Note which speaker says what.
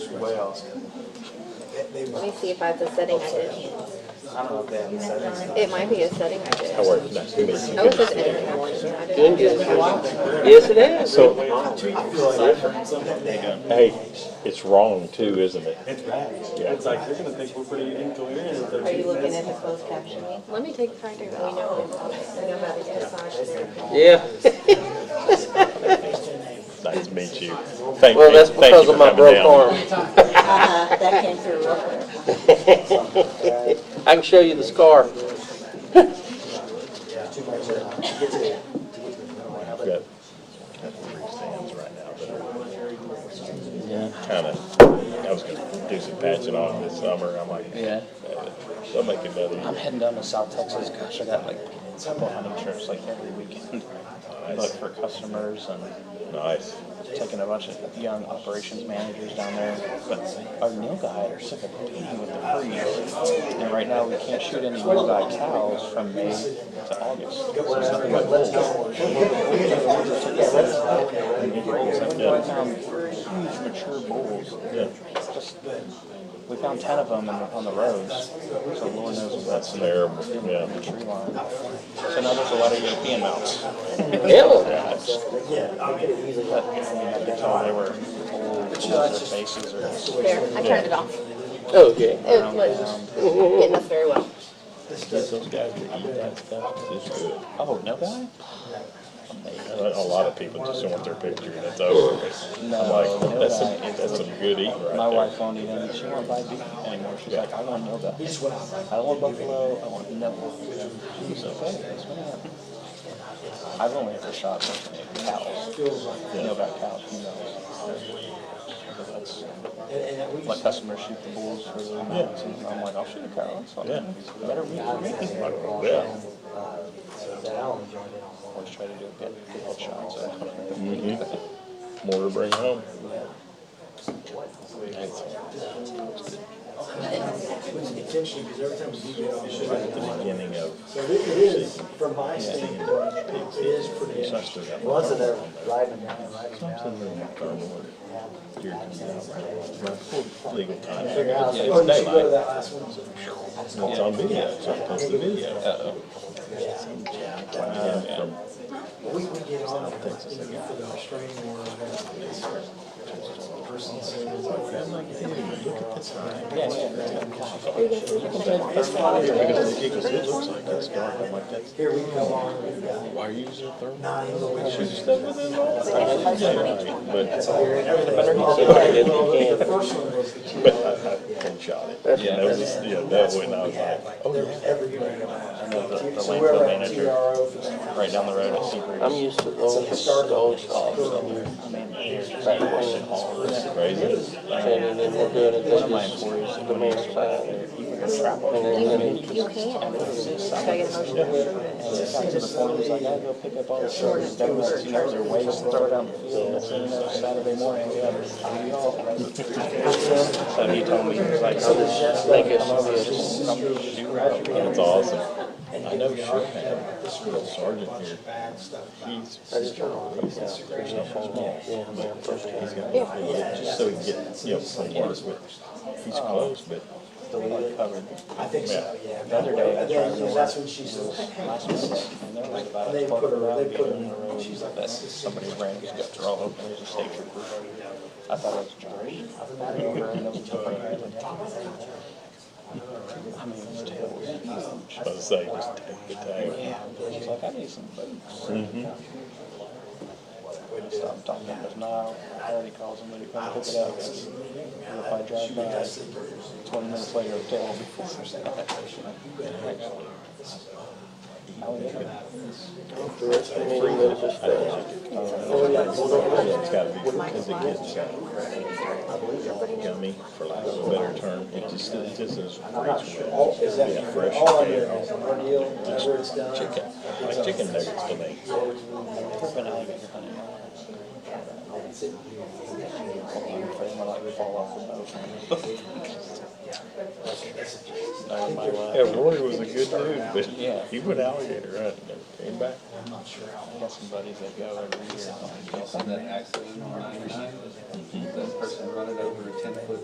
Speaker 1: What else?
Speaker 2: That they
Speaker 3: Let
Speaker 2: was,
Speaker 3: me see if I have the setting I did.
Speaker 2: I don't know if they have the settings.
Speaker 3: It might be a setting I did.
Speaker 4: How are you? Nice to meet
Speaker 3: Oh, it
Speaker 4: you.
Speaker 3: says editing options. I didn't do it.
Speaker 5: Yes, it is.
Speaker 4: So,
Speaker 2: I feel like that they have.
Speaker 4: hey, it's wrong too, isn't it?
Speaker 1: It's bad.
Speaker 4: Yeah.
Speaker 1: It's like, they're gonna think we're pretty incoherent if
Speaker 6: Are you
Speaker 1: they're
Speaker 6: looking at the closed captioning?
Speaker 3: Let me take Friday. We know nobody's massage therapy.
Speaker 5: Yeah.
Speaker 4: Nice to meet you. Thank
Speaker 5: Well,
Speaker 4: you,
Speaker 5: that's because
Speaker 4: thank you
Speaker 5: of
Speaker 4: for
Speaker 5: my
Speaker 4: coming
Speaker 5: broke
Speaker 4: down.
Speaker 5: arm.
Speaker 6: Uh-huh, that came through real quick.
Speaker 5: I can show you the scar.
Speaker 4: Got- got three stands right now, but Kinda, I was gonna do some patching on this summer, I'm like, eh,
Speaker 7: Yeah,
Speaker 4: I'll make another.
Speaker 7: I'm
Speaker 4: year.
Speaker 7: heading down to South Texas. Gosh, I got like several hunting trips like every weekend. Look for customers and
Speaker 4: Nice.
Speaker 7: taking a bunch of young operations managers down there. But our Neil guy are sick of competing with the free. And right now we can't shoot any Neil guy cows from May to August. So it's nothing but bulls. We found Um, huge mature bulls.
Speaker 4: Yeah,
Speaker 7: Just, we found ten of them on the roads. So Lord knows what
Speaker 4: that's terrible, yeah.
Speaker 7: tree line. So now there's a lot of European mounts.
Speaker 5: Yeah.
Speaker 7: Oh, they were old, their faces are
Speaker 3: There, I turned it off.
Speaker 5: Okay.
Speaker 3: It wasn't getting us very well.
Speaker 4: Those guys that eat that stuff, it's good.
Speaker 7: Oh, no guy?
Speaker 4: A a lot of people just want their picture and it's over. I'm like, that's some, that's some good eating right there.
Speaker 7: My wife won't eat them. She won't buy beef anymore. She's like, I want no guy. I don't want buffalo. I want no. It's okay. That's what I want. I've only ever shot cows. No guy cows. You Let customers shoot the bulls for their mounts. And I'm like, I'll shoot a cow. That's fine.
Speaker 4: Yeah.
Speaker 7: Better meat for me.
Speaker 4: Yeah.
Speaker 7: Always try to do a good, good headshot. So.
Speaker 4: Mhm. More to bring home.
Speaker 2: Intentionally, because every time we do get on, it's
Speaker 4: Right at the beginning of,
Speaker 2: So it it is, from my standpoint, it is pretty.
Speaker 4: so I still got.
Speaker 2: Wasn't there riding down, riding down?
Speaker 4: Here it comes out. My full Legal time.
Speaker 2: Figure out,
Speaker 4: Yeah,
Speaker 2: oh,
Speaker 4: it's
Speaker 2: did you go to
Speaker 4: daylight.
Speaker 2: that last one?
Speaker 4: It's on video, so I posted the video. Uh-oh. From
Speaker 2: We, we get on there, you know, for the restraining order. Person says,
Speaker 4: Because it because it looks like it's dark, I'm like, that's.
Speaker 2: here we come on, we've got
Speaker 4: Why are you using a thermal?
Speaker 2: nine locations.
Speaker 4: But
Speaker 2: The first one was the two,
Speaker 4: but I, I shot it. Yeah, that was, yeah, that went, I was like, oh,
Speaker 2: there was every unit.
Speaker 4: the
Speaker 2: So we're
Speaker 4: landfill
Speaker 2: at
Speaker 4: manager.
Speaker 2: TRO for the
Speaker 4: right down the road at Seabreeze.
Speaker 5: I'm used to those, those cows.
Speaker 4: It's crazy.
Speaker 5: And then we're doing it, they just, the man's side. And then, then he
Speaker 3: You can. Should I get a motion?
Speaker 7: to the point, he's like, I gotta go pick up all the shirts, that was, you know, their waste, throw it out in the field, next thing you know, Saturday morning, we have a
Speaker 4: So he told me, he was like, oh, this shit's
Speaker 5: like it's,
Speaker 4: That's awesome. I know Sherman, this little sergeant here, he's, he's
Speaker 5: yeah, man, first time.
Speaker 4: just so he can get, you know, some work with, he's close, but
Speaker 7: covered.
Speaker 2: I think so, yeah.
Speaker 7: The other day, I tried
Speaker 2: Yeah,
Speaker 7: to
Speaker 2: that's when she said,
Speaker 7: last week, and there was about
Speaker 2: they
Speaker 7: a
Speaker 2: put
Speaker 7: twelve
Speaker 2: her,
Speaker 7: around
Speaker 2: they put her in
Speaker 7: here,
Speaker 2: the room, she's like,
Speaker 7: that somebody ran his guts are all open, there's a state trooper. I thought it was Johnny. I mean, his tail was huge.
Speaker 4: I was like, just take the Mm-hmm. tag.
Speaker 7: Yeah, he's like, I need some boots. Stop talking to him now. Already calls him, ready to come pick it up. And If I drive by, twenty minutes later, the tail will be full.
Speaker 5: I mean, he lives just fast.
Speaker 4: It's gotta be, because it gets uh, gummy, for lack of a better term, it just, it just is.
Speaker 2: all, is that,
Speaker 4: Yeah, fresh.
Speaker 2: all I hear is ordeal, whenever it's done.
Speaker 4: Chicken, like chicken nuggets to me.
Speaker 7: Been alligator hunting. I'm afraid my leg will fall off the boat. No, in my life.
Speaker 4: Yeah, Roy was a good dude, but
Speaker 7: Yeah.
Speaker 4: he went alligator hunting, never came back.
Speaker 7: I got some buddies that go every year.
Speaker 8: that accident on ninety-nine, that person running over a ten-foot